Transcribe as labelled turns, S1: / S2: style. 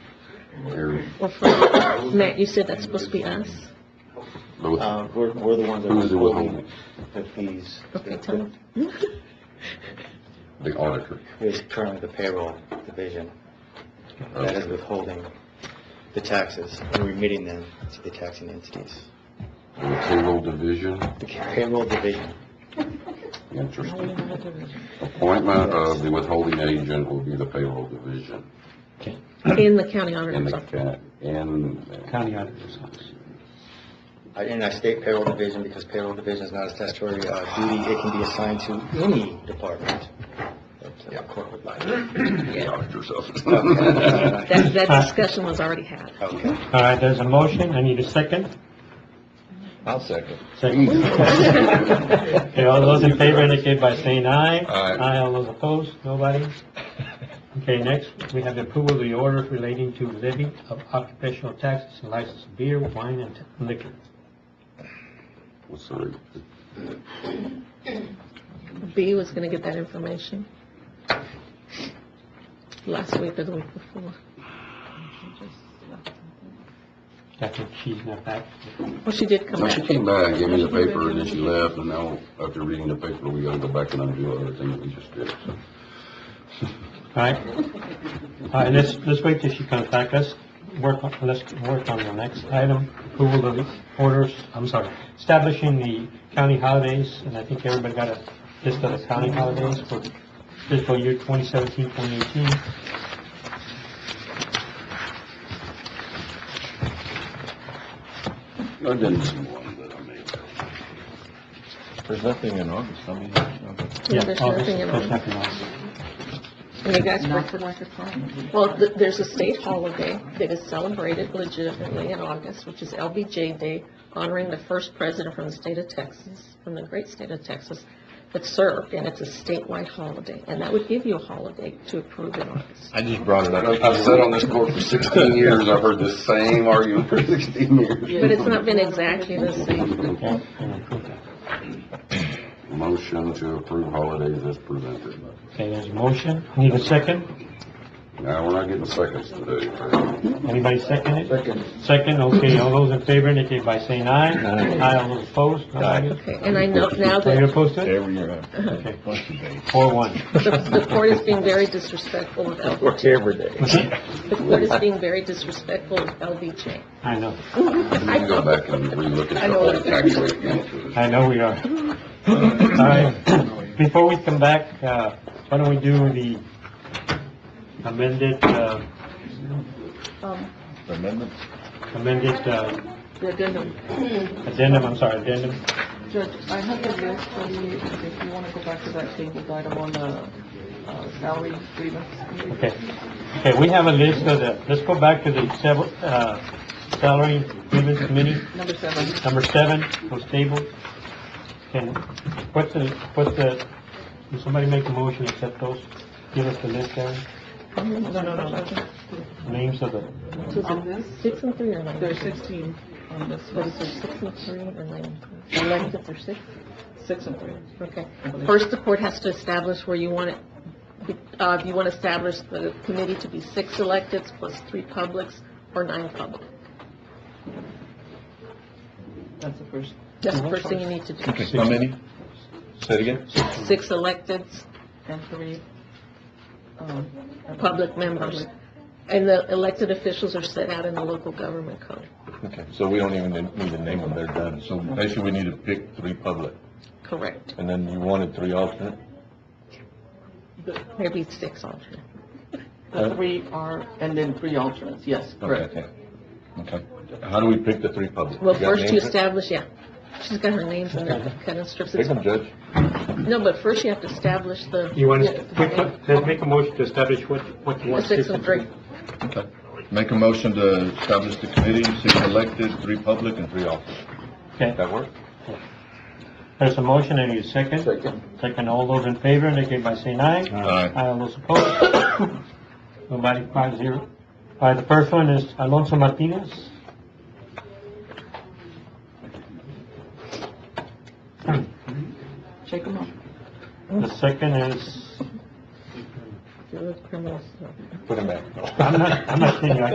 S1: or for, Matt, you said that's supposed to be us?
S2: No,
S3: Uh, we're, we're the ones that
S2: Who's
S3: are
S2: the
S3: holding
S2: withholding?
S3: the fees.
S1: Okay, tell them.
S2: The auditor.
S3: It's currently the payroll division that is
S2: Okay.
S3: withholding the taxes and remitting them to the taxing entities.
S2: And the payroll division,
S3: The payroll division,
S2: interesting. Appointment of the withholding agent will be the payroll division
S1: In the county
S2: in
S1: auditor's
S2: the,
S1: office.
S2: ca- in,
S4: County auditor's office.
S3: I- and I state payroll division because payroll division is not a statutory uh, duty. It can be assigned to any department. But, uh, corporate line.
S2: the auditor's office.
S1: That, that discussion was already had.
S3: Okay.
S4: All right, there's a motion, I need a second.
S3: I'll second.
S4: Second. Okay, all those in favor indicate by saying aye.
S2: Aye.
S4: all those opposed, nobody? Okay, next, we have the approval of the order relating to levy of occupational taxes and license of beer, wine, and liquor.
S2: Well, Sorry.
S1: B was gonna get that information last week or the week before.
S4: That's what she's not back.
S1: Well, she did come
S2: No,
S1: back.
S2: she came back, gave me the paper, and then she left, and now, after reading the paper, we gotta go back and undo everything that we just did, so.
S4: All right? All right, let's, let's wait till she comes back, let's work, on- let's work on the next item, approval of the orders, I'm sorry, establishing the county holidays, and I think everybody got a list of the county holidays for fiscal year 2017, 2018.
S2: I didn't see one, but I may have.
S3: There's nothing in August, I mean,
S1: Yeah,
S4: Yeah,
S1: there's
S4: August,
S1: nothing in
S4: there's
S1: August.
S4: nothing else.
S1: And you guys work it like a plan. Well, th- there's a state holiday that is celebrated legitimately in August, which is LBJ Day, honoring the first president from the state of Texas, from the great state of Texas, that served, and it's a statewide holiday. And that would give you a holiday to approve in August.
S5: I just brought it up.
S2: I've I've sat on this court for sixteen years, I've heard the same argument for sixteen years.
S1: But it's not been exactly the same.
S4: Yeah, and approve that.
S2: Motion to approve holidays as presented.
S4: Okay, there's a motion, need a second,
S2: Now, we're not getting seconds today. right?
S4: anybody second it? Second. Second, okay, all those in favor indicate by saying aye.
S5: Aye.
S4: all those opposed, nobody?
S1: Okay, and I know now
S4: Are you
S1: that
S4: opposed to it?
S5: Every year,
S4: Okay,
S5: once a day.
S4: four one.
S1: the the court is being very disrespectful of LBJ.
S3: Works every day.
S1: The court is being very disrespectful of LBJ.
S4: I know,
S2: We can go back and relook
S1: I
S2: at the whole
S1: know.
S2: tax rate calculation.
S4: I know we are. All right, before we come back, uh, why don't we do the amended, uh,
S5: Amendment?
S4: amended, uh,
S6: The addendum,
S4: addendum, I'm sorry, addendum?
S6: Judge, I have the list for you, if you want to go back to that table item on the uh, salary grievance.
S4: Okay, okay, we have a list of the, let's go back to the sever, uh, salary grievance committee,
S6: Number seven,
S4: number seven, was tabled. And what's the, what's the, can somebody make a motion, accept those? Give us the list, Karen,
S6: no, no, no, no.
S4: names of the
S6: On this,
S1: Um, Six and three are nine.
S6: there's sixteen on this,
S1: But
S6: what
S1: is
S6: is
S1: there
S6: it,
S1: six and three or nine? Elected or six?
S6: six and three?
S1: Okay. First, the court has to establish where you want it, uh, if you want to establish the committee to be six electeds plus three publics or nine public.
S6: That's the first.
S1: That's the first thing you need to do.
S5: How many? Say it again?
S1: Six electeds,
S6: And three, um,
S1: public members. And the elected officials are set out in the local government code.
S5: Okay, so we don't even need to name them, they're done. So basically, we need to pick three public,
S1: Correct.
S5: and then you wanted three alternate?
S1: Maybe six alternate.
S6: the three are, and then three alternates, yes, correct.
S5: Okay. Okay. How do we pick the three public?
S1: Well,
S5: You got
S1: first you
S5: names?
S1: establish, yeah. She's got her names in there, cut and strips.
S5: Pick them, Judge.
S1: No, but first you have to establish the.
S4: You want
S6: Yeah.
S4: to, we put- let's make a motion to establish what, what you
S1: the
S4: want.
S1: Six and three.
S5: Okay. Make a motion to establish the committee, six elected, three public, and three alternate.
S4: Okay,
S5: That work?
S4: there's a motion, I need a second. Second. all those in favor, indicate by saying aye.
S5: Aye.
S4: Aye, all those opposed. Nobody, five zero. All right, the first one is Alonso Martinez.
S6: Shake them off.
S4: The second is,
S1: You're the criminal.
S5: Put them back.
S4: I'm not, I'm not saying I